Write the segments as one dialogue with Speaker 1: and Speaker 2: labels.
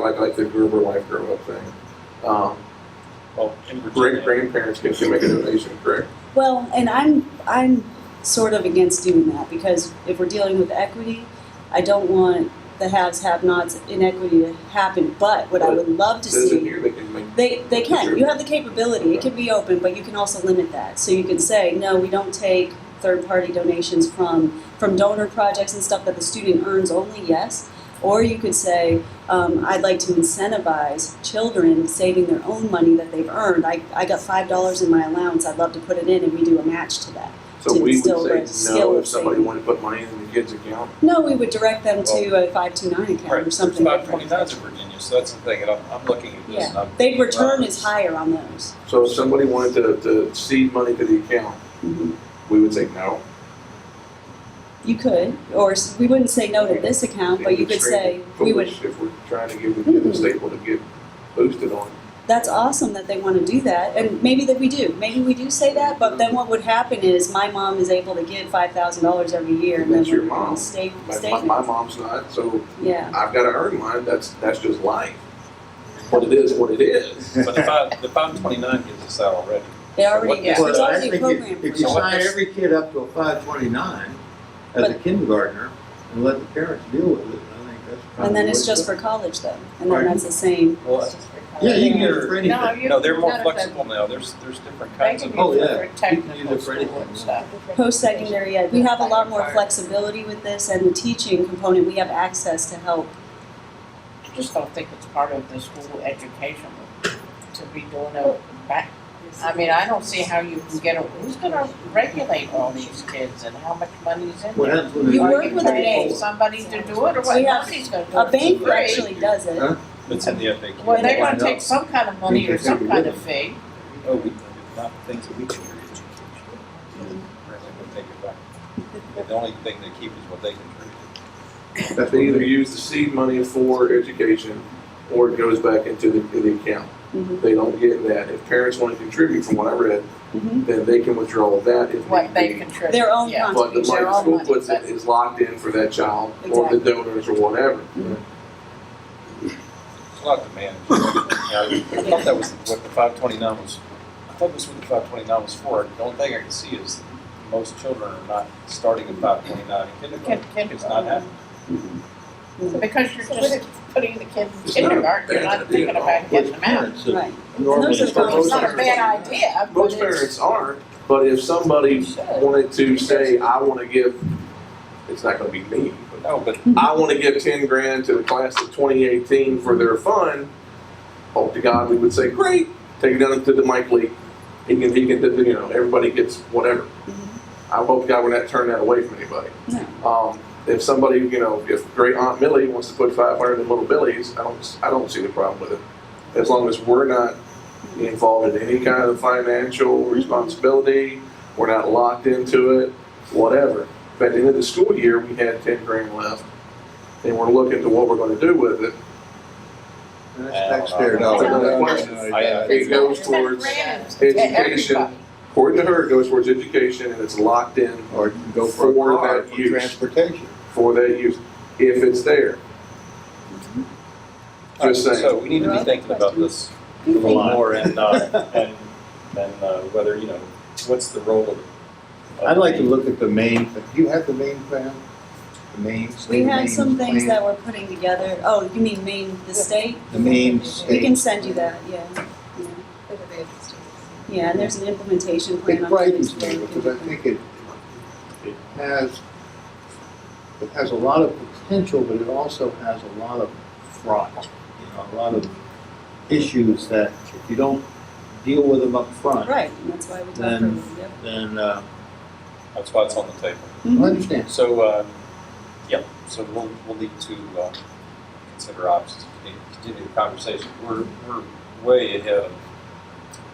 Speaker 1: like, like the Gruber Life Grow Up thing. Um,
Speaker 2: Well, in Virginia,
Speaker 1: great grandparents can still make a donation, correct?
Speaker 3: Well, and I'm I'm sort of against doing that because if we're dealing with equity, I don't want the haves have nots inequity to happen. But what I would love to
Speaker 1: Citizen
Speaker 3: see
Speaker 1: here, they can make,
Speaker 3: they they can. You have the capability. It can be open, but you can also limit that. So you can say, no, we don't take third party donations from from donor projects and stuff that the student earns only, yes. Or you could say, um, I'd like to incentivize children saving their own money that they've earned. I, I got five dollars in my allowance. I'd love to put it in, and we do a match to that.
Speaker 1: so
Speaker 3: to
Speaker 1: we
Speaker 3: instill
Speaker 1: would
Speaker 3: the
Speaker 1: say
Speaker 3: skill
Speaker 1: no
Speaker 3: of
Speaker 1: if somebody
Speaker 3: saving.
Speaker 1: wanted to put money in the kid's account.
Speaker 3: No, we would direct them to a five two nine account
Speaker 2: Right,
Speaker 3: or
Speaker 2: there's
Speaker 3: something.
Speaker 2: about
Speaker 3: different.
Speaker 2: twenty towns in Virginia, so that's the thing, and I'm, I'm looking at this and
Speaker 3: Yeah,
Speaker 2: I'm.
Speaker 3: they return is higher on those.
Speaker 1: So if somebody wanted to, to seed money to the account,
Speaker 3: Mhm.
Speaker 1: we would say no.
Speaker 3: You could, or s- we wouldn't say no to this account, but you
Speaker 1: It'd be
Speaker 3: could say
Speaker 1: extremely
Speaker 3: we would
Speaker 1: foolish If we're trying to give the kid a
Speaker 3: Mhm.
Speaker 1: staple to get boosted on.
Speaker 3: that's awesome that they want to do that and maybe that we do maybe we do say that but then what would happen is my mom is able to give $5000 every year and
Speaker 1: That's
Speaker 3: then
Speaker 1: your
Speaker 3: we're
Speaker 1: mom.
Speaker 3: stay,
Speaker 1: My,
Speaker 3: stay
Speaker 1: my, my mom's not, so
Speaker 3: yeah
Speaker 1: I've gotta earn mine, that's, that's just life. What it is, what it is.
Speaker 2: But the five, the five twenty-nine gives us that already.
Speaker 3: they already
Speaker 2: Yeah.
Speaker 3: it's
Speaker 4: Well, I
Speaker 3: already
Speaker 4: think
Speaker 3: programmed
Speaker 4: if,
Speaker 3: for
Speaker 4: if you
Speaker 2: So what
Speaker 4: sign
Speaker 2: this-
Speaker 4: every kid up to a five twenty-nine as a
Speaker 3: But-
Speaker 4: kindergartner and let the parents deal with it, I think that's probably.
Speaker 3: and then
Speaker 4: what-
Speaker 3: it's just for college though and then
Speaker 4: Pardon?
Speaker 3: that's the same
Speaker 2: Well,
Speaker 4: Yeah, you can get it for
Speaker 5: No,
Speaker 4: anything.
Speaker 5: you.
Speaker 2: no, they're more
Speaker 5: none of them.
Speaker 2: flexible now, there's, there's different
Speaker 5: They
Speaker 2: kinds of.
Speaker 5: can use
Speaker 4: Oh, yeah.
Speaker 5: it for
Speaker 4: You can use
Speaker 5: technical
Speaker 4: it for
Speaker 5: school
Speaker 4: anything.
Speaker 5: and stuff.
Speaker 3: post-secondary ed we have a lot more flexibility with this and the teaching component we have access to help
Speaker 5: I just don't think it's part of the school education to be doing a back. I mean, I don't see how you can get, a who's gonna regulate all these kids and how much money's in
Speaker 4: What
Speaker 5: there?
Speaker 4: happens when.
Speaker 3: You
Speaker 4: they-
Speaker 5: Are
Speaker 3: work with a
Speaker 5: paying
Speaker 3: bank.
Speaker 5: Somebody to do it or what?
Speaker 3: We have-
Speaker 5: Nobody's gonna do it.
Speaker 3: a bank
Speaker 5: for free.
Speaker 3: actually does it
Speaker 4: Huh?
Speaker 2: It's in the FAQ.
Speaker 5: Well, they're
Speaker 4: Why
Speaker 5: gonna
Speaker 4: not?
Speaker 5: take some kind of money or some kind of fee.
Speaker 2: Oh, we, not things that we can do in education. Right, like we'll take it back. But The only thing they keep is what they contribute.
Speaker 4: That's
Speaker 1: They either
Speaker 4: either.
Speaker 1: use the seed money for education or it goes back into the, to the account.
Speaker 5: Mm-hmm.
Speaker 3: Mhm.
Speaker 1: They don't get that. If parents want to contribute, from what I read,
Speaker 3: Mhm.
Speaker 1: then they can withdraw that if
Speaker 5: Mm-hmm. What
Speaker 1: need
Speaker 5: they
Speaker 1: be.
Speaker 5: contribute.
Speaker 3: Their own
Speaker 5: yeah.
Speaker 1: But the
Speaker 3: contribution
Speaker 1: money
Speaker 5: Their
Speaker 1: the
Speaker 5: own
Speaker 1: school
Speaker 5: money,
Speaker 1: puts in
Speaker 5: but-
Speaker 1: is locked in for that child or the donors or whatever.
Speaker 5: Mm-hmm.
Speaker 2: It's a lot to manage. You know, I thought that was what the five twenty-nine was, I thought that's what the five twenty-nine was for. The only thing I can see is most children are not starting at five twenty-nine in
Speaker 5: Kid,
Speaker 2: kindergarten.
Speaker 5: kid,
Speaker 2: It's not happening.
Speaker 5: because you're just putting the kids in
Speaker 1: It's not a
Speaker 5: kindergarten, you're
Speaker 1: bad
Speaker 5: not
Speaker 1: idea
Speaker 5: thinking
Speaker 1: at all.
Speaker 5: about getting
Speaker 4: Which
Speaker 5: them out.
Speaker 4: parents have
Speaker 3: right
Speaker 4: normally.
Speaker 3: Those are the
Speaker 4: started-
Speaker 5: It's not a bad
Speaker 3: parents-
Speaker 5: idea, but
Speaker 1: Most
Speaker 5: it's.
Speaker 1: parents aren't, but if somebody wanted to say, I want to give, it's not going to be me, but
Speaker 2: No, but
Speaker 1: I want to give ten grand to the class of 2018 for their fund. Hope Oh, to God we would say, great, take it down to the Mike Lee. He can, he can, you know, everybody gets whatever. I hope to God we're not turning that away from anybody.
Speaker 3: No.
Speaker 1: Um, if somebody, you know, if great Aunt Millie wants to put 500 in Little Billy's, I don't, I don't see the problem with it. As long as we're not involved in any kind of financial responsibility, we're not locked into it, whatever. If At the end of the school year, we had 10 grand left, and we're looking to what we're going to do with it.
Speaker 4: That's taxpayer dollars.
Speaker 1: That's another question.
Speaker 4: uh,
Speaker 1: It goes
Speaker 5: It's
Speaker 1: towards
Speaker 5: random to
Speaker 1: education,
Speaker 5: everybody.
Speaker 1: according to her, it goes towards education, and it's locked in
Speaker 4: Or you can go for a
Speaker 1: For
Speaker 4: car
Speaker 1: that
Speaker 4: for
Speaker 1: use.
Speaker 4: transportation.
Speaker 1: for that use, if it's there. Just saying.
Speaker 2: uh, So we need to be thinking about this a little more and, uh, and, and uh, whether, you know, what's the role of. of
Speaker 4: I'd like to
Speaker 2: the-
Speaker 4: look at the main, do you have the main plan? The main, state
Speaker 3: we had
Speaker 4: main
Speaker 3: some things
Speaker 4: plan?
Speaker 3: that we're putting together oh you mean maine the state
Speaker 4: The main state.
Speaker 3: we can send you that yeah yeah, yeah and there's an implementation plan
Speaker 4: It
Speaker 3: on how
Speaker 4: frightens
Speaker 3: it's
Speaker 4: me
Speaker 3: going.
Speaker 4: because I think it, it has, it has a lot of potential, but it also has a lot of fraud. You know, a lot of issues that if you don't deal with them up front,
Speaker 3: Right, and that's why we talked about
Speaker 4: Then-
Speaker 3: it, yep.
Speaker 4: then, uh,
Speaker 2: That's why it's on the table.
Speaker 3: Mm-hmm.
Speaker 4: I understand.
Speaker 2: So, uh, yeah, so we'll, we'll need to, uh, consider options, continue- continue the conversation. We're, we're way ahead of.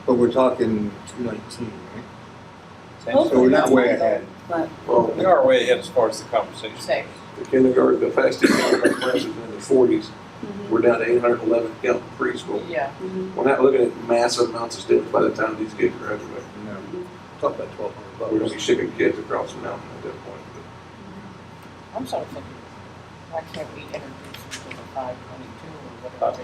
Speaker 4: But we're talking two nineteen, right? So
Speaker 3: Hopefully
Speaker 4: we're
Speaker 3: that's
Speaker 4: not way
Speaker 3: not
Speaker 4: ahead.
Speaker 3: But
Speaker 1: Well,
Speaker 2: We are way ahead as far as the conversation.
Speaker 5: Say,
Speaker 1: the kindergarten, the fastest kindergarten classes in the forties,
Speaker 3: mhm,
Speaker 1: we're down to eight hundred eleven count preschool.
Speaker 5: yeah,
Speaker 3: mhm.
Speaker 1: We're not looking at massive amounts of students by the time these kids graduate.
Speaker 4: No, talk about twelve
Speaker 1: We're
Speaker 4: hundred
Speaker 1: gonna
Speaker 4: bucks.
Speaker 1: be shipping kids across the mountain at that point.
Speaker 5: I'm sort of thinking, why can't we introduce them to the five twenty-two or whatever?
Speaker 2: Five